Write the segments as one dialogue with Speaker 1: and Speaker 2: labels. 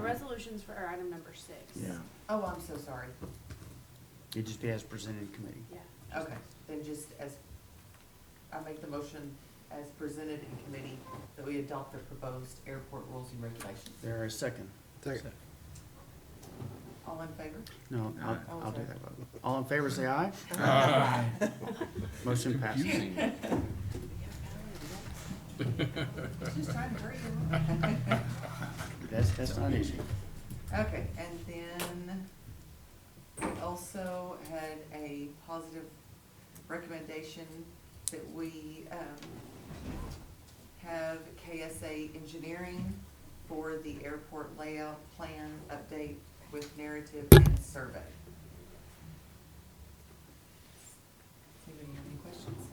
Speaker 1: resolutions for our item number six.
Speaker 2: Yeah,
Speaker 3: Oh, I'm so sorry.
Speaker 2: it just be as presented in committee.
Speaker 1: Yeah.
Speaker 3: Okay, then just as, I make the motion as presented in committee that we adopt the proposed airport rules and regulations.
Speaker 2: There is second.
Speaker 4: Second.
Speaker 3: All in favor?
Speaker 2: No, I'll,
Speaker 3: Oh,
Speaker 2: I'll do
Speaker 3: sorry.
Speaker 2: that. vote. All in favor, say aye. Motion passes.
Speaker 5: Confusing.
Speaker 3: Just trying to hurry you up.
Speaker 2: That's, that's not easy.
Speaker 3: Okay, and then we also had a positive recommendation that we, um, have KSA Engineering for the airport layout plan update with narrative and survey. Anybody have any questions?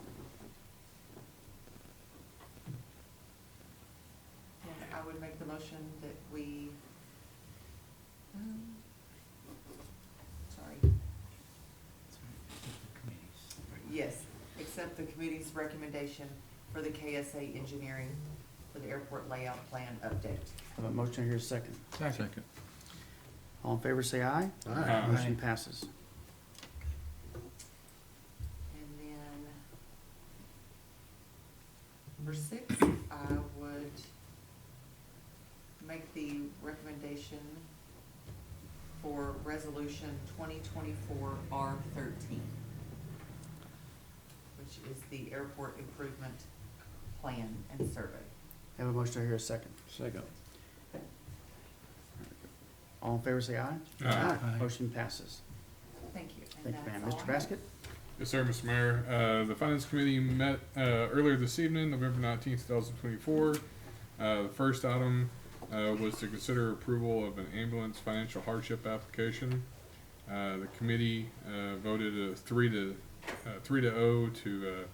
Speaker 3: And I would make the motion that we um, Sorry, yes, accept the committee's recommendation for the KSA engineering for the airport layout plan update.
Speaker 2: Have a motion here, second.
Speaker 4: Second.
Speaker 5: Second.
Speaker 2: All in favor, say aye.
Speaker 5: Aye.
Speaker 2: Motion passes.
Speaker 3: And then number six, I would make the recommendation for resolution twenty twenty-four R thirteen, which is the airport improvement plan and survey.
Speaker 2: Have a motion here, second.
Speaker 5: Second.
Speaker 2: All in favor, say aye.
Speaker 6: Aye.
Speaker 4: Aye.
Speaker 2: Motion passes.
Speaker 3: Thank you. and
Speaker 2: Thank you, ma'am.
Speaker 3: that's
Speaker 2: Mr.
Speaker 3: all I have.
Speaker 2: Basket?
Speaker 6: Yes, sir, Mr. Mayor. Uh, the Finance Committee met, uh, earlier this evening, November nineteenth, two thousand twenty-four. Uh, the first item, uh, was to consider approval of an ambulance financial hardship application. Uh, the committee, uh, voted a three to, uh, three to oh to,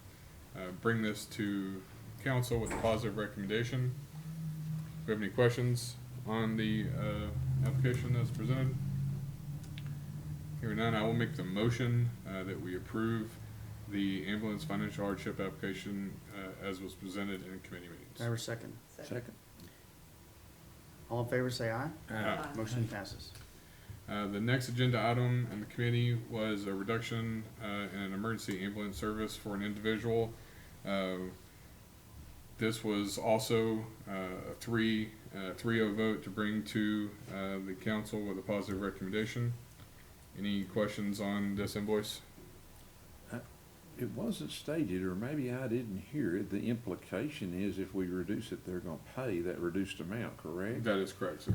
Speaker 6: uh, uh, bring this to council with a positive recommendation. Do you have any questions on the, uh, application that's presented? Hearing none, I will make the motion uh, that we approve the ambulance financial hardship application uh, as was presented in committee
Speaker 2: Have
Speaker 6: meetings.
Speaker 2: a second.
Speaker 3: Second.
Speaker 5: Second.
Speaker 2: All in favor, say aye.
Speaker 6: Uh,
Speaker 3: Aye.
Speaker 2: Motion passes.
Speaker 6: uh, The next agenda item in the committee was a reduction uh, in an emergency ambulance service for an individual. Uh, This was also uh, a three, uh, three oh vote to bring to uh, the council with a positive recommendation. Any questions on this invoice?
Speaker 5: It wasn't stated, or maybe I didn't hear it, the implication is if we reduce it, they're gonna pay that reduced amount, correct?
Speaker 6: That is correct, sir.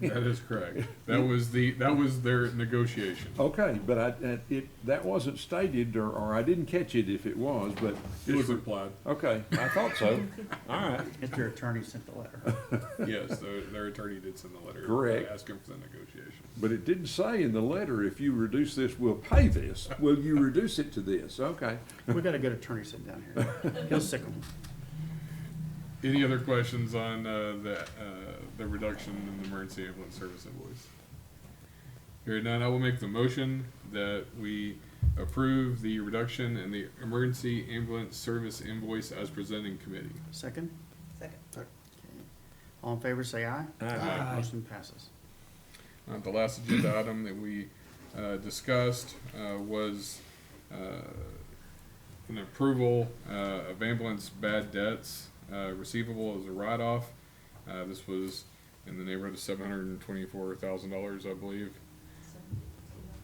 Speaker 6: That is correct. That was the, that was their negotiation.
Speaker 5: Okay, but I, that- it, that wasn't stated, or, or I didn't catch it if it was, but.
Speaker 6: It was implied.
Speaker 5: Okay, I thought so. All right.
Speaker 2: If your attorney sent the letter.
Speaker 6: Yes, their, their attorney did send the letter.
Speaker 5: Correct.
Speaker 6: Asking for the negotiation.
Speaker 5: But it didn't say in the letter, if you reduce this, we'll pay this. Will you reduce it to this? Okay.
Speaker 2: We've got a good attorney sitting down here. He'll sick 'em.
Speaker 6: Any other questions on, uh, the, uh, the reduction in the emergency ambulance service invoice? Hearing none, I will make the motion that we approve the reduction in the emergency ambulance service invoice as presented in committee.
Speaker 2: Second?
Speaker 3: Second.
Speaker 2: Okay. All in favor, say aye.
Speaker 5: Uh,
Speaker 4: Aye.
Speaker 2: Motion passes.
Speaker 6: Uh, the last agenda item that we uh, discussed uh, was uh, an approval uh, of ambulance bad debts uh, receivable as a write-off. Uh, This was in the neighborhood of seven hundred and twenty-four thousand dollars, I believe.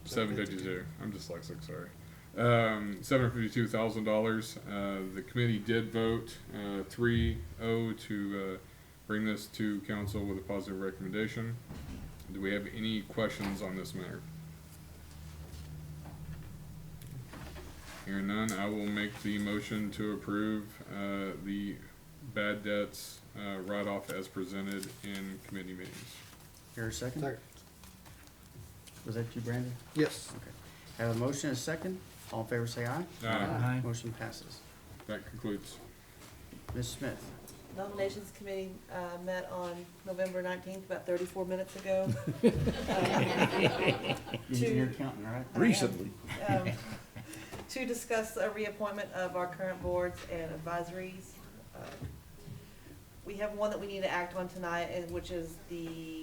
Speaker 6: Seven fifty-two, I'm dyslexic, sorry. Um, seven hundred fifty-two thousand dollars. Uh, The committee did vote uh, three oh to uh, bring this to council with a positive recommendation. Do we have any questions on this matter? Hearing none, I will make the motion to approve uh, the bad debts uh, write-off as presented in committee meetings.
Speaker 2: Here, second?
Speaker 4: Second.
Speaker 2: Was that you, Brandon?
Speaker 4: Yes.
Speaker 2: Okay. Have a motion and a second. All in favor, say aye.
Speaker 6: Uh,
Speaker 4: Aye.
Speaker 2: Motion passes.
Speaker 6: That concludes.
Speaker 2: Ms. Smith,
Speaker 7: Nominations Committee uh, met on November 19th, about 34 minutes ago.
Speaker 2: you're your accountant, right?
Speaker 5: Recently.
Speaker 7: Um, To discuss a reappointment of our current boards and advisories. Uh, We have one that we need to act on tonight, and which is the